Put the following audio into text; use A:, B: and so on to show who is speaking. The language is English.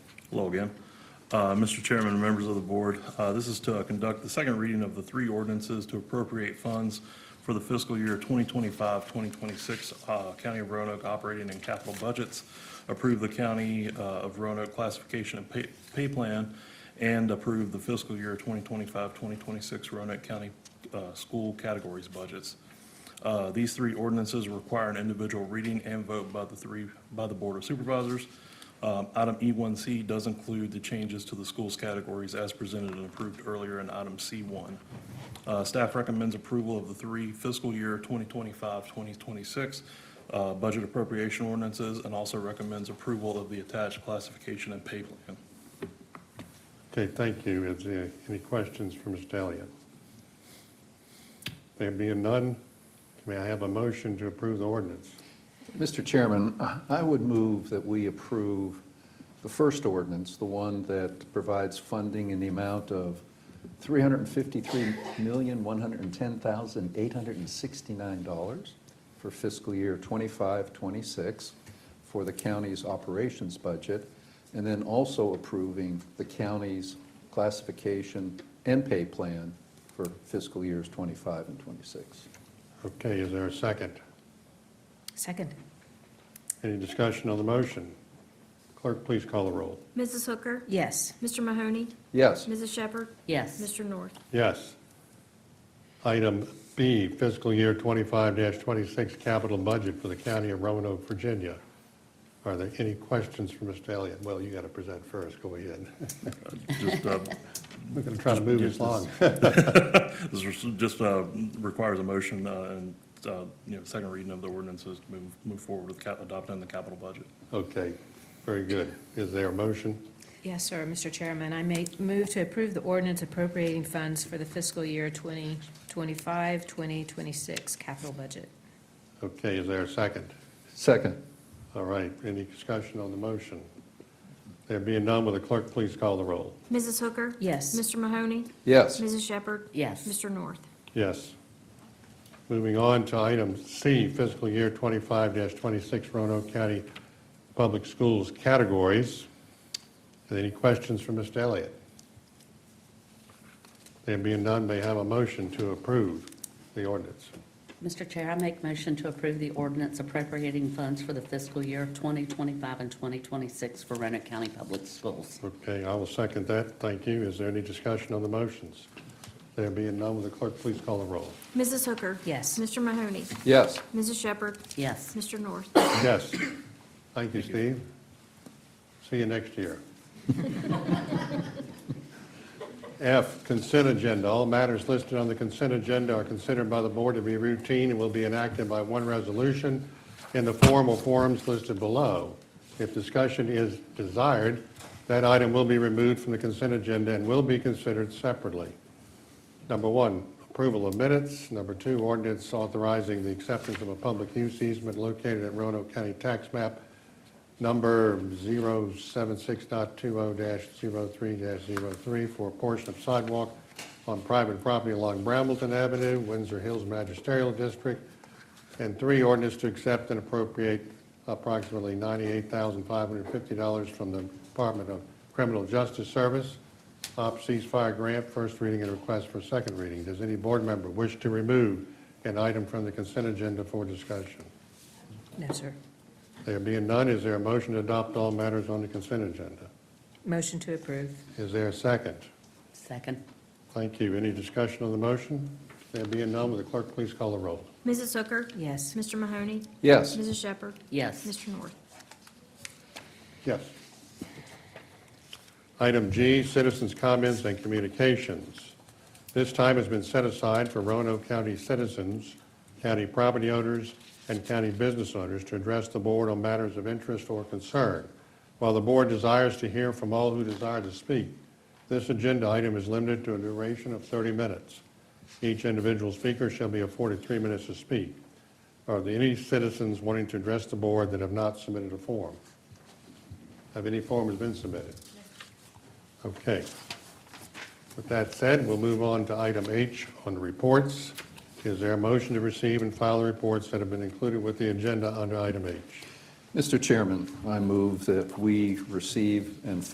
A: Hello again. Uh, Mr. Chairman, and members of the board, uh, this is to conduct the second reading of the three ordinances to appropriate funds for the fiscal year 2025, 2026 uh, County of Roanoke operating and capital budgets, approve the County uh, of Roanoke classification and pay- pay plan, and approve the fiscal year 2025, 2026 Roanoke County uh, school categories budgets. Uh, These three ordinances require an individual reading and vote by the three, by the Board of Supervisors. Um, Item E1C does include the changes to the schools categories as presented and approved earlier in item C1. Uh, Staff recommends approval of the three fiscal year 2025, 2026 uh, budget appropriation ordinances and also recommends approval of the attached classification and pay plan.
B: Okay, thank you. Is there any questions for Mr. Elliott? There being none, may I have a motion to approve the ordinance?
C: Mr. Chairman, I would move that we approve the first ordinance, the one that provides funding in the amount of $353,110,869 for fiscal year 25, 26 for the county's operations budget, and then also approving the county's classification and pay plan for fiscal years 25 and 26.
B: Okay, is there a second?
D: Second.
B: Any discussion on the motion? Clerk, please call the roll.
E: Mrs. Hooker?
D: Yes.
E: Mr. Mahoney?
C: Yes?
E: Mrs. Shepherd?
D: Yes.
E: Mr. North?
B: Yes. Item B, fiscal year 25-26 capital budget for the county of Roanoke, Virginia. Are there any questions for Mr. Elliott? Well, you got to present first, go ahead.
A: Just uh,
B: We're going to try to move this along.
A: This is just uh, requires a motion uh, and, uh, you know, second reading of the ordinances to move, move forward with cap- adopting the capital budget.
B: Okay, very good. Is there a motion?
D: Yes, sir, Mr. Chairman, I may move to approve the ordinance appropriating funds for the fiscal year 2025, 2026 capital budget.
B: Okay, is there a second?
C: Second?
B: All right, any discussion on the motion? There being none, will the clerk please call the roll?
E: Mrs. Hooker?
D: Yes.
E: Mr. Mahoney?
C: Yes?
E: Mrs. Shepherd?
F: Yes.
E: Mr. North?
B: Yes. Moving on to item C, fiscal year 25-26 Roanoke County Public Schools categories. Are there Any questions for Mr. Elliott? There being none, may I have a motion to approve the ordinance?
F: Mr. Chair, I make motion to approve the ordinance appropriating funds for the fiscal year 2025 and 2026 for Roanoke County Public Schools.
B: Okay, I will second that. Thank you. Is there any discussion on the motions? There being none, will the clerk please call the roll?
E: Mrs. Hooker?
D: Yes.
E: Mr. Mahoney?
C: Yes?
E: Mrs. Shepherd?
F: Yes.
E: Mr. North?
B: Yes. Thank you, Steve. See you next year. F, consent agenda. All matters listed on the consent agenda are considered by the board to be routine and will be enacted by one resolution in the form or forms listed below. If discussion is desired, that item will be removed from the consent agenda and will be considered separately. Number one, approval of minutes. Number two, ordinance authorizing the acceptance of a public use easement located at Roanoke County Tax Map number 076.20-03-03 for a portion of sidewalk on private property along Brambleton Avenue, Windsor Hills Magisterial District. And three, ordinance to accept and appropriate approximately $98,550 from the Department of Criminal Justice Service, OP ceasefire grant, first reading and request for second reading. Does any board member wish to remove an item from the consent agenda for discussion?
D: No, sir.
B: There being none, is there a motion to adopt all matters on the consent agenda?
D: Motion to approve.
B: Is there a second?
F: Second.
B: Thank you. Any discussion on the motion? There being none, will the clerk please call the roll?
E: Mrs. Hooker?
D: Yes.
E: Mr. Mahoney?
C: Yes?
E: Mrs. Shepherd?
F: Yes.
E: Mr. North?
B: Yes. Item G, citizens' comments and communications. This time has been set aside for Roanoke County citizens, county property owners, and county business owners to address the board on matters of interest or concern. While the board desires to hear from all who desire to speak, this agenda item is limited to a duration of 30 minutes. Each individual speaker shall be afforded three minutes to speak. Are there any citizens wanting to address the board that have not submitted a form? Have any forms been submitted? Okay. With that said, we'll move on to item H on the reports. Is there a motion to receive and file the reports that have been included with the agenda under item H?
C: Mr. Chairman, I move that we receive and file